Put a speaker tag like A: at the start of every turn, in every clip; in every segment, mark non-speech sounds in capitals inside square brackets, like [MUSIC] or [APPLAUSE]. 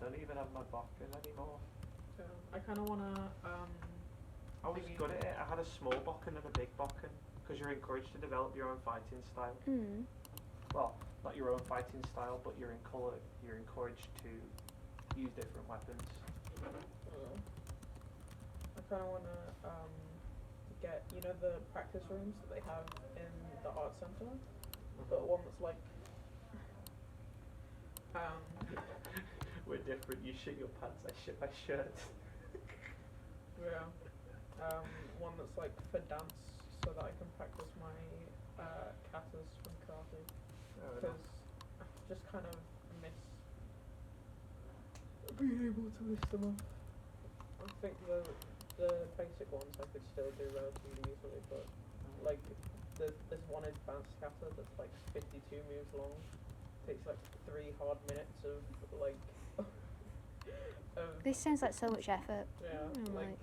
A: don't even have my boxes anymore.
B: So I kind of want to. Um,
A: I was
B: Thingy.
A: good at it. I had a small bokken and a big bokken because you're encouraged to develop your own fighting style.
C: Mm.
A: Well, not your own fighting style, but you're in color. You're encouraged to use different weapons.
B: uh, I kind of want to um, get you know the practice rooms that they have in the art center, but
A: Uh-huh.
B: one that's like. Um,
A: [LAUGHS] We're different. You shit your pants. I shit my [LAUGHS] shirt.
B: Yeah. Um, one that's like for dance, so that I can practice my uh, katas from karate.
A: Oh,
B: Because I just kind of miss being able to list them off. I think the the basic ones I could still do relatively easily, but like there's, there's one advanced kata that's like 52 moves long. Takes like three hard minutes of like [LAUGHS] of
C: This sounds like so much effort.
B: yeah
C: I'm
B: like
C: like,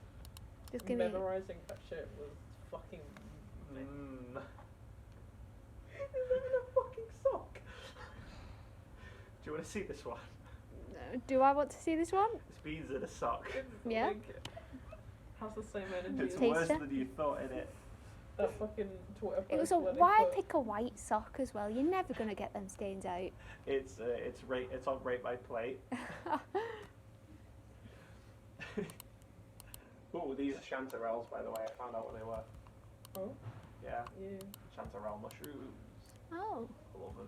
C: just give me.
B: memorizing that shit was fucking.
A: [LAUGHS] Mm.
B: Is that in a fucking sock?
A: [LAUGHS] Do you want to see this one?
C: No, Do I want to see this one?
A: It's beans in a sock.
C: Yeah.
B: Like, has the same energy.
A: It's
B: as
C: Taste
A: worse
C: it.
A: than you thought, innit?
B: that fucking Twitter.
C: It was
B: post
C: a.
B: where they
C: Why
B: put-
C: pick a white sock as well? You're never gonna get them stains out. [LAUGHS]
A: It's uh, it's right. It's on right by [LAUGHS] plate. oh, these are chanterelles, by the way. I found out what they were.
B: Oh
A: Yeah,
B: yeah.
A: chanterelle mushrooms.
C: oh,
A: I love them.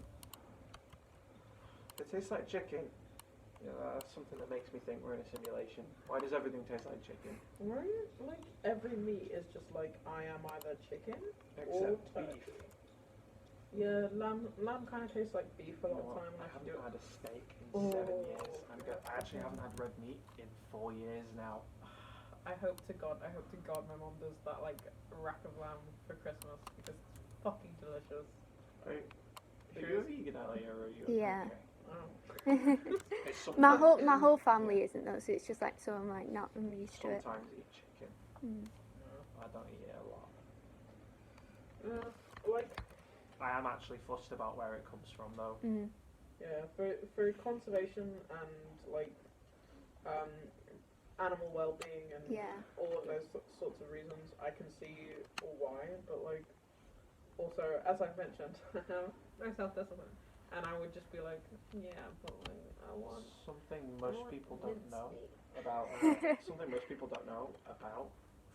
A: They taste like chicken. Yeah, that's something that makes me think we're in a simulation. Why does everything taste like chicken?
B: Right? Like every meat is just like I am either chicken or
A: Except
B: turkey.
A: beef.
B: Yeah, lamb. Lamb kind of tastes like beef a
A: You
B: lot
A: know
B: of
A: what?
B: time
A: I
B: when I can do
A: haven't
B: it.
A: had a steak in seven
B: Oh.
A: years. I'm go- I actually haven't had red meat in four years now.
B: I hope to God, I hope to God, my mom does that like rack of lamb for Christmas because it's fucking delicious.
A: Are you,
B: Sure.
A: are you a vegan, Ellie, or are you?
C: Yeah.
B: Oh.
A: Okay. It's
C: [LAUGHS] my
A: sometimes-
C: whole my whole family isn't though, so it's just like so I'm like not I'm used to it.
A: Sometimes eat chicken.
C: Mm.
A: I don't eat it a lot.
B: Uh, like
A: I am actually fussed about where it comes from, though.
C: Mm.
B: Yeah, for for conservation and like um, animal well-being and
C: Yeah.
B: all of those so- sorts of reasons, I can see why. But like, also as I've mentioned, [LAUGHS] no self-discipline, and I would just be like, yeah, but like, I want.
A: Something
B: I
A: most
B: want
A: people don't
B: mince
A: know
B: meat. [LAUGHS]
A: about uh, something most people don't know about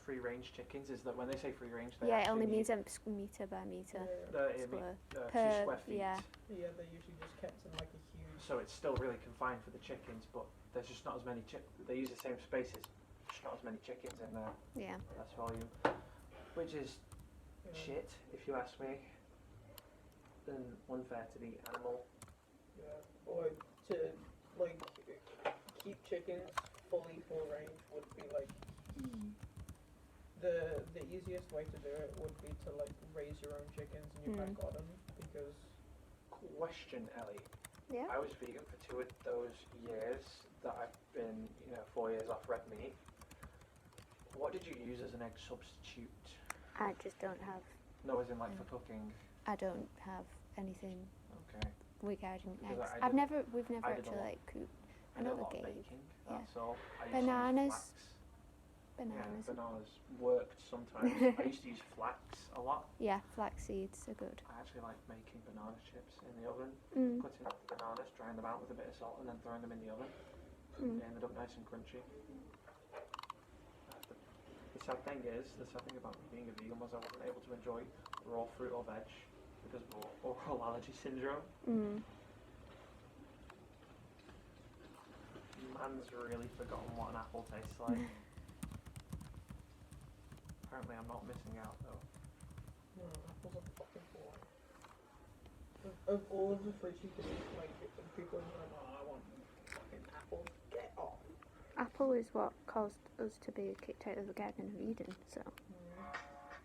A: free range chickens is that when they say free range, they
C: Yeah, it
A: actually
C: only
A: mean-
C: means um, squ- meter by meter.
B: Yeah,
A: uh, it mean,
C: square.
A: uh, two
C: per-
A: square feet.
C: yeah.
B: yeah, they're usually just kept in like a huge.
A: So it's still really confined for the chickens, but there's just not as many chick. They use the same spaces, just not as many chickens in there.
C: Yeah.
A: That's volume, which is
B: you know,
A: shit, if you ask me. And unfair to the animal.
B: Yeah, or to like keep chickens fully full range would be like the the easiest way to do it would be to like raise your own chickens in your back garden because
A: Question, Ellie.
C: Yeah.
A: I was vegan for two of those years that I've been, you know, four years off red meat. What did you use as an egg substitute?
C: I just don't have.
A: No, as in like for
C: Mm.
A: cooking.
C: I don't have anything
A: Okay.
C: regarding
A: Because
C: eggs.
A: I
C: I've
A: did-
C: never. We've never
A: I did a
C: actually
A: lot.
C: like cooked
A: I did a
C: Another
A: lot of
C: game.
A: baking.
C: Yeah.
A: That's all. I used to use
C: Bananas.
A: flax.
C: bananas.
A: Yeah, bananas worked
C: [LAUGHS]
A: sometimes. I used to use flax a lot.
C: Yeah, flax seeds are good.
A: I actually like making banana chips in the oven.
C: Mm.
A: Cutting up the bananas, drying them out with a bit of salt, and then throwing them in the oven.
C: Mm.
A: They ended up nice and crunchy. That's The, the sad thing is, the sad thing about me being a vegan was I wasn't able to enjoy raw fruit or veg because of or- oral [LAUGHS] allergy syndrome.
C: Mm.
A: Man's really forgotten what an apple tastes like. Apparently, I'm not missing out though.
B: no, apples are fucking full. Of, of all of the fruits you can eat, like people are like, oh, I want fucking apples. Get off.
C: Apple is what caused us to be kicked out of the Garden of Eden. So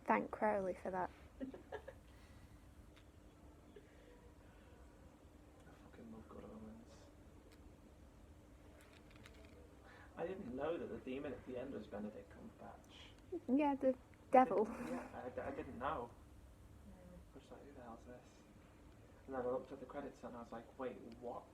C: thank Crowley for that.
A: I fucking love good omens. I didn't know that the demon at the end was Benedict Cumberbatch.
C: Yeah, the devil.
A: Yeah, I, d- I didn't know. I was like, who the hell's this? And then I looked at the credits and I was like, wait, what?